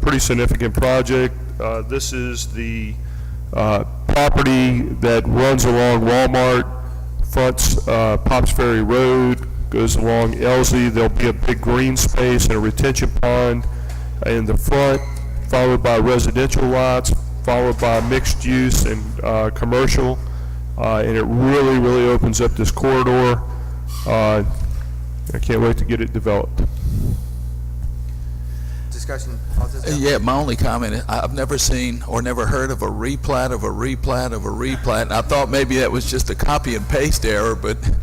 pretty significant project. Uh, This is the uh, property that runs along Walmart, fronts uh, Pops Ferry Road, goes along Elsie. There'll be a big green space and a retention pond in the front, followed by residential lots, followed by mixed use and uh, commercial. Uh, And it really, really opens up this corridor. Uh, I can't wait to get it developed. Discussion, all this Uh, down. Yeah, my only comment, is I- I've never seen or never heard of a replat of a replat of a replat. And I thought maybe that was just a copy and paste error, but Don't you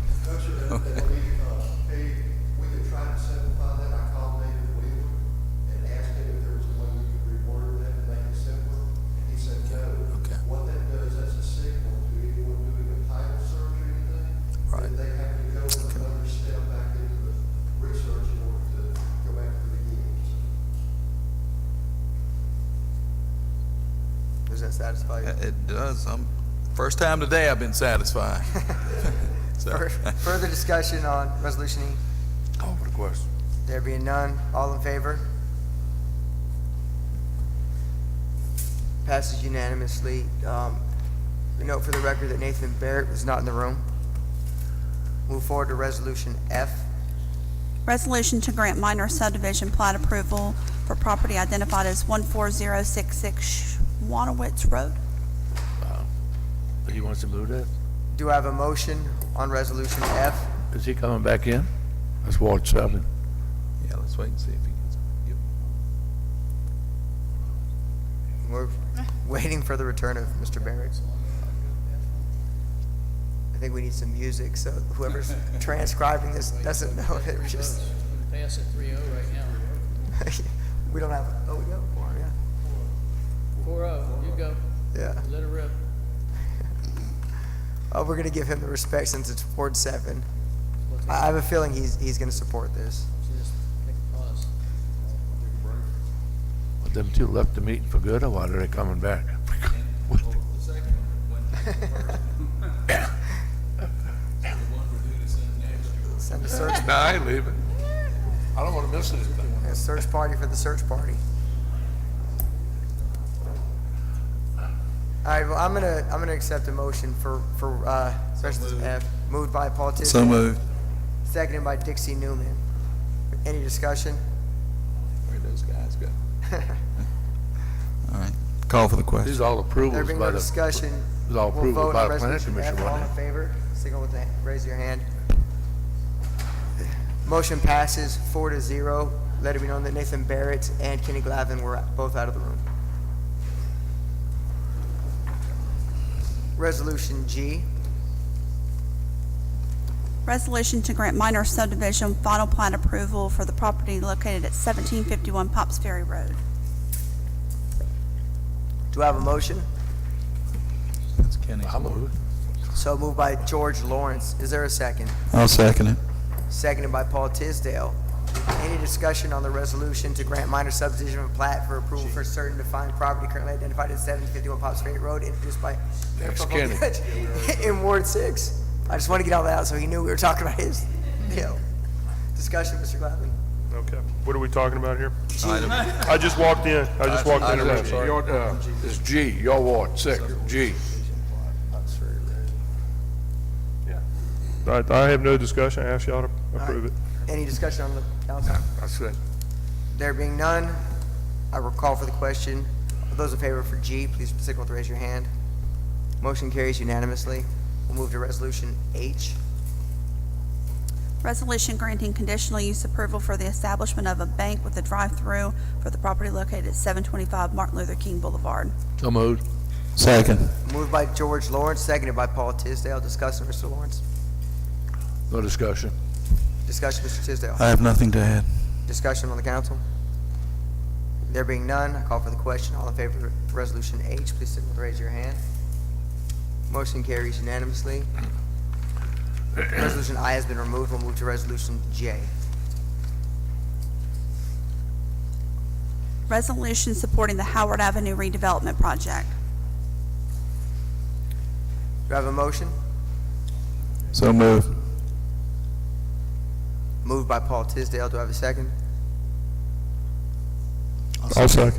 know that we, uh, hey, we could try to simplify that, I called David Wheeler and asked him if there was a way we could reword that and make it simpler, and he said no. Okay. What that does, that's a signal to anyone doing a title search or anything. Right. That they have to go another step back into the research in order to go back to the beginning, so. does that satisfy you? it does. I'm, first time today I've been satisfied. Fur- So- Further discussion on resolution E? Call for the question. There being none, all in favor? Passes unanimously. Um, we Note for the record that Nathan Barrett was not in the room. Move forward to Resolution F. Resolution to grant minor subdivision plat approval for property identified as 14066 Wanowitz Road. He wants to move that? Do I have a motion on Resolution F? Is he coming back in? Let's watch something. Yeah, let's wait and see if he gets. yep. We're waiting for the return of Mr. Barrett. I think we need some music, so whoever's transcribing this doesn't know it, we're just, Pass at 3-0 right now. we don't have, oh, we got a quorum, 4-0, oh, you go. yeah, yeah. Let her rip. Oh, we're gonna give him the respect since it's Ward seven. I I have a feeling he's, he's gonna support this. Just take a pause. But them two left the meeting for good, or why are they coming back? Oh, Send a search, No, I ain't leaving. I don't want to miss anything. a search party for the search party. All right, well, I'm gonna, I'm gonna accept a motion for, for, uh, Resolution F, moved by Paul Tisdale. So moved. Seconded by Dixie Newman. Any discussion? Where'd those guys go? All right, call for the These question. are all There approvals being by no the. discussion, It was all we'll approved vote by on the planning Resolution commission, F. All in wasn't favor, signal with the, raise your hand. Motion passes four to zero. Let it be known that Nathan Barrett and Kenny Glavin were both out of the room. Resolution G, Resolution to grant minor subdivision final plat approval for the property located at 1751 Pops Ferry Road. do I have a motion? That's Kenny's. it? I move. So moved by George Lawrence. Is there a second? I'll second it. Seconded by Paul Tisdale. Any discussion on the resolution to grant minor subdivision of plat for approval for certain defined property currently identified as seven fifty-one Pops Ferry Road, introduced by That's Mayor Kenny. Provost in Ward Six? I just want to get all that out so he knew we were talking about his deal. Discussion, Mr. Glavine. Okay, what are we talking about here? I just walked in, I just walked in, I'm sorry. Your, uh, It's G, your ward, six, G. I I have no discussion, I ask y'all to approve it. Any discussion on the council? That's it. There being none, I will call for the question. Those in favor for G, please signal to raise your hand. Motion carries unanimously. We'll move to resolution H. Resolution granting conditional use approval for the establishment of a bank with a drive-through for the property located at 725 Martin Luther King Boulevard. So moved. Second. Moved by George Lawrence, seconded by Paul Tisdale. Discussion, Mr. Lawrence. No discussion. Discussion, Mr. Tisdale. I have nothing to add. Discussion on the council. There being none, I call for the question. All in favor of Resolution H, please signal with raise your hand. Motion carries unanimously. Resolution I has been removed. We'll move to Resolution J. Resolution supporting the Howard Avenue redevelopment project. Do I have a motion? So moved. Moved by Paul Tisdale. Do I have a second? I'll second.